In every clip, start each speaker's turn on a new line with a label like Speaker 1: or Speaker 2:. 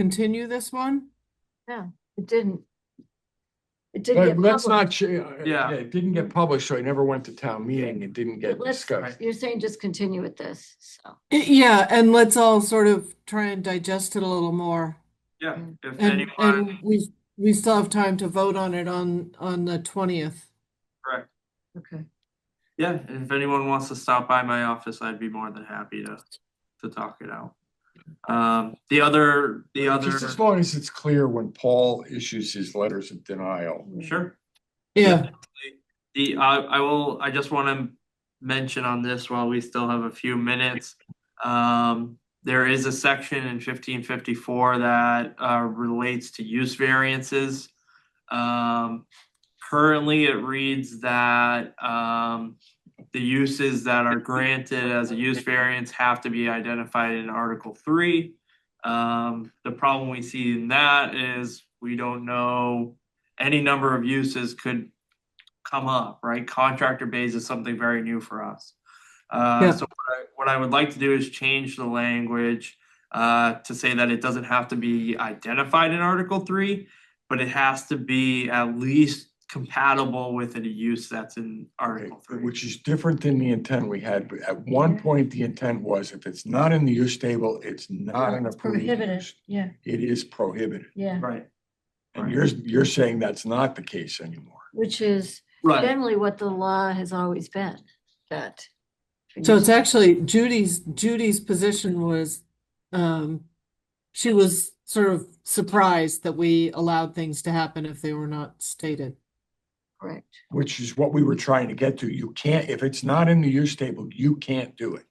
Speaker 1: continue this one?
Speaker 2: It didn't. It didn't
Speaker 3: But
Speaker 2: get
Speaker 3: let's not,
Speaker 2: published.
Speaker 3: ch- uh, yeah,
Speaker 4: Yeah.
Speaker 3: it didn't get published, so it never went to town meeting. It didn't get
Speaker 2: Let's-
Speaker 3: discussed.
Speaker 2: You're saying just continue with this, so.
Speaker 1: Y- Yeah, and let's all sort of try and digest it a little more.
Speaker 4: Yeah, if
Speaker 1: Mm. And, and
Speaker 4: anyone,
Speaker 1: we, we still have time to vote on it on, on the twentieth.
Speaker 4: correct,
Speaker 2: Okay.
Speaker 4: yeah, if anyone wants to stop by my office, I'd be more than happy to, to talk it out. Um, the other, the other,
Speaker 3: Just as long as it's clear when Paul issues his letters of denial.
Speaker 4: sure.
Speaker 1: Yeah,
Speaker 4: The, I, I will, I just wanna mention on this while we still have a few minutes. Um, there is a section in fifteen fifty-four that, uh, relates to use variances. Um, currently it reads that, um, the uses that are granted as a use variance have to be identified in Article three. Um, the problem we see in that is we don't know, any number of uses could come up, right? Contractor base is something very new for us. Uh,
Speaker 1: Yeah.
Speaker 4: so what I, what I would like to do is change the language uh, to say that it doesn't have to be identified in Article three, but it has to be at least compatible with a use that's in
Speaker 3: Okay,
Speaker 4: Article three.
Speaker 3: Which is different than the intent we had. But At one point, the intent was if it's not in the use table, it's not an approved
Speaker 2: Prohibited,
Speaker 3: use.
Speaker 2: yeah,
Speaker 3: It is prohibited.
Speaker 2: yeah,
Speaker 4: Right.
Speaker 3: And
Speaker 4: Right.
Speaker 3: you're, you're saying that's not the case anymore.
Speaker 2: which is
Speaker 4: Right.
Speaker 2: generally what the law has always been, that.
Speaker 1: so it's actually Judy's, Judy's position was, um, she was sort of surprised that we allowed things to happen if they were not stated.
Speaker 2: Correct,
Speaker 3: Which is what we were trying to get to. You can't, if it's not in the use table, you can't do it.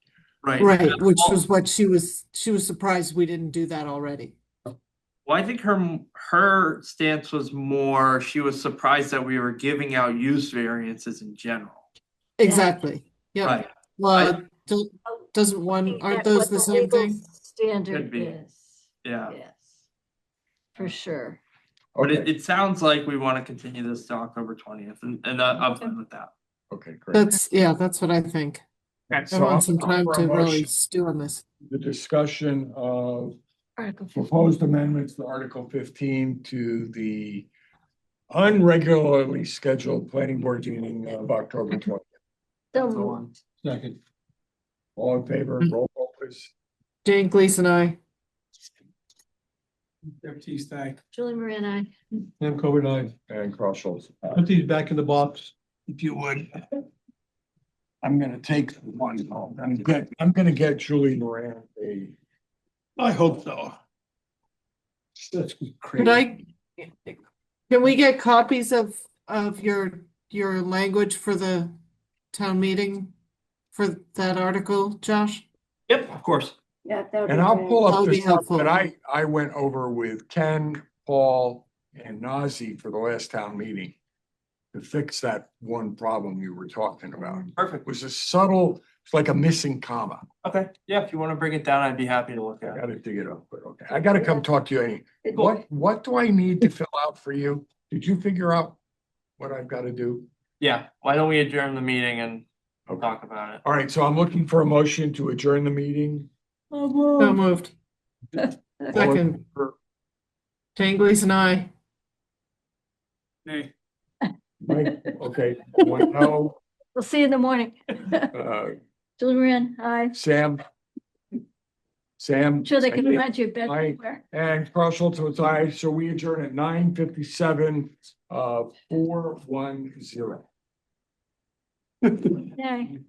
Speaker 4: Right.
Speaker 1: Right, which was what she was, she was surprised we didn't do that already.
Speaker 4: Well, I think her her stance was more she was surprised that we were giving out use variances in general.
Speaker 1: Exactly, yeah.
Speaker 4: Right.
Speaker 1: Well, do- doesn't one,
Speaker 2: think
Speaker 1: aren't
Speaker 2: that
Speaker 1: those
Speaker 2: what
Speaker 1: the
Speaker 2: the
Speaker 1: same
Speaker 2: legal
Speaker 1: thing?
Speaker 2: Standard
Speaker 4: be.
Speaker 2: is,
Speaker 4: Yeah.
Speaker 2: yes. For sure.
Speaker 4: But it,
Speaker 3: Okay,
Speaker 4: it sounds like we want to continue this to October twentieth and, and uh, I'm fine with that.
Speaker 3: okay, great.
Speaker 1: That's, yeah, that's what I think. I
Speaker 3: So I'm-
Speaker 1: want some
Speaker 3: I'm
Speaker 1: time
Speaker 3: for a
Speaker 1: to really
Speaker 3: motion.
Speaker 1: stew on this.
Speaker 3: The discussion of
Speaker 2: Article
Speaker 3: proposed amendments to Article fifteen to the unregularly scheduled planning board meeting of October twentieth.
Speaker 2: So
Speaker 4: So,
Speaker 2: moved.
Speaker 3: Second. All in favor, roll call please.
Speaker 1: Jane Gleason, I.
Speaker 5: Deputy Stack,
Speaker 2: Julie Moran, I,
Speaker 5: Sam Cohen, I,
Speaker 3: And Carl Schultz.
Speaker 5: put these back in the box, if you would.
Speaker 3: I'm gonna take one home. I'm good. I'm gonna get Julie Moran a.
Speaker 5: I hope so.
Speaker 3: That's
Speaker 1: Could I, can we get copies of, of your, your language for the town meeting? For that article, Josh?
Speaker 4: Yep, of course.
Speaker 6: Yeah, that would be
Speaker 3: And I'll
Speaker 6: great.
Speaker 3: pull
Speaker 1: That'll
Speaker 3: up the
Speaker 1: be
Speaker 3: stuff
Speaker 1: helpful.
Speaker 3: that I, I went over with Ken, Paul, and Nazi for the last town meeting. To fix that one problem you were talking about. It
Speaker 4: Perfect.
Speaker 3: was a subtle, it's like a missing comma.
Speaker 4: Okay. Yeah, if you want to bring it down, I'd be happy to look
Speaker 3: I
Speaker 4: at it.
Speaker 3: gotta dig it up, but okay. I gotta come talk to you. any- What, what do I need to fill out for you? Did you figure out what I've gotta do?
Speaker 4: Yeah, why don't we adjourn the meeting and
Speaker 3: Okay.
Speaker 4: talk about it?
Speaker 3: All right, so I'm looking for a motion to adjourn the meeting.
Speaker 1: So
Speaker 2: Oh,
Speaker 1: moved.
Speaker 3: All in
Speaker 1: Second,
Speaker 3: favor?
Speaker 1: Jane Gleason, I.
Speaker 3: Mike, Okay, one no,
Speaker 2: We'll see you in the morning.
Speaker 3: uh,
Speaker 2: Julie Moran, I,
Speaker 3: Sam. Sam.
Speaker 2: sure they can
Speaker 3: I-
Speaker 2: find you back
Speaker 3: Aye.
Speaker 2: somewhere.
Speaker 3: And Carl Schultz votes aye, so we adjourn at nine fifty-seven, uh, four one zero.
Speaker 2: Nay.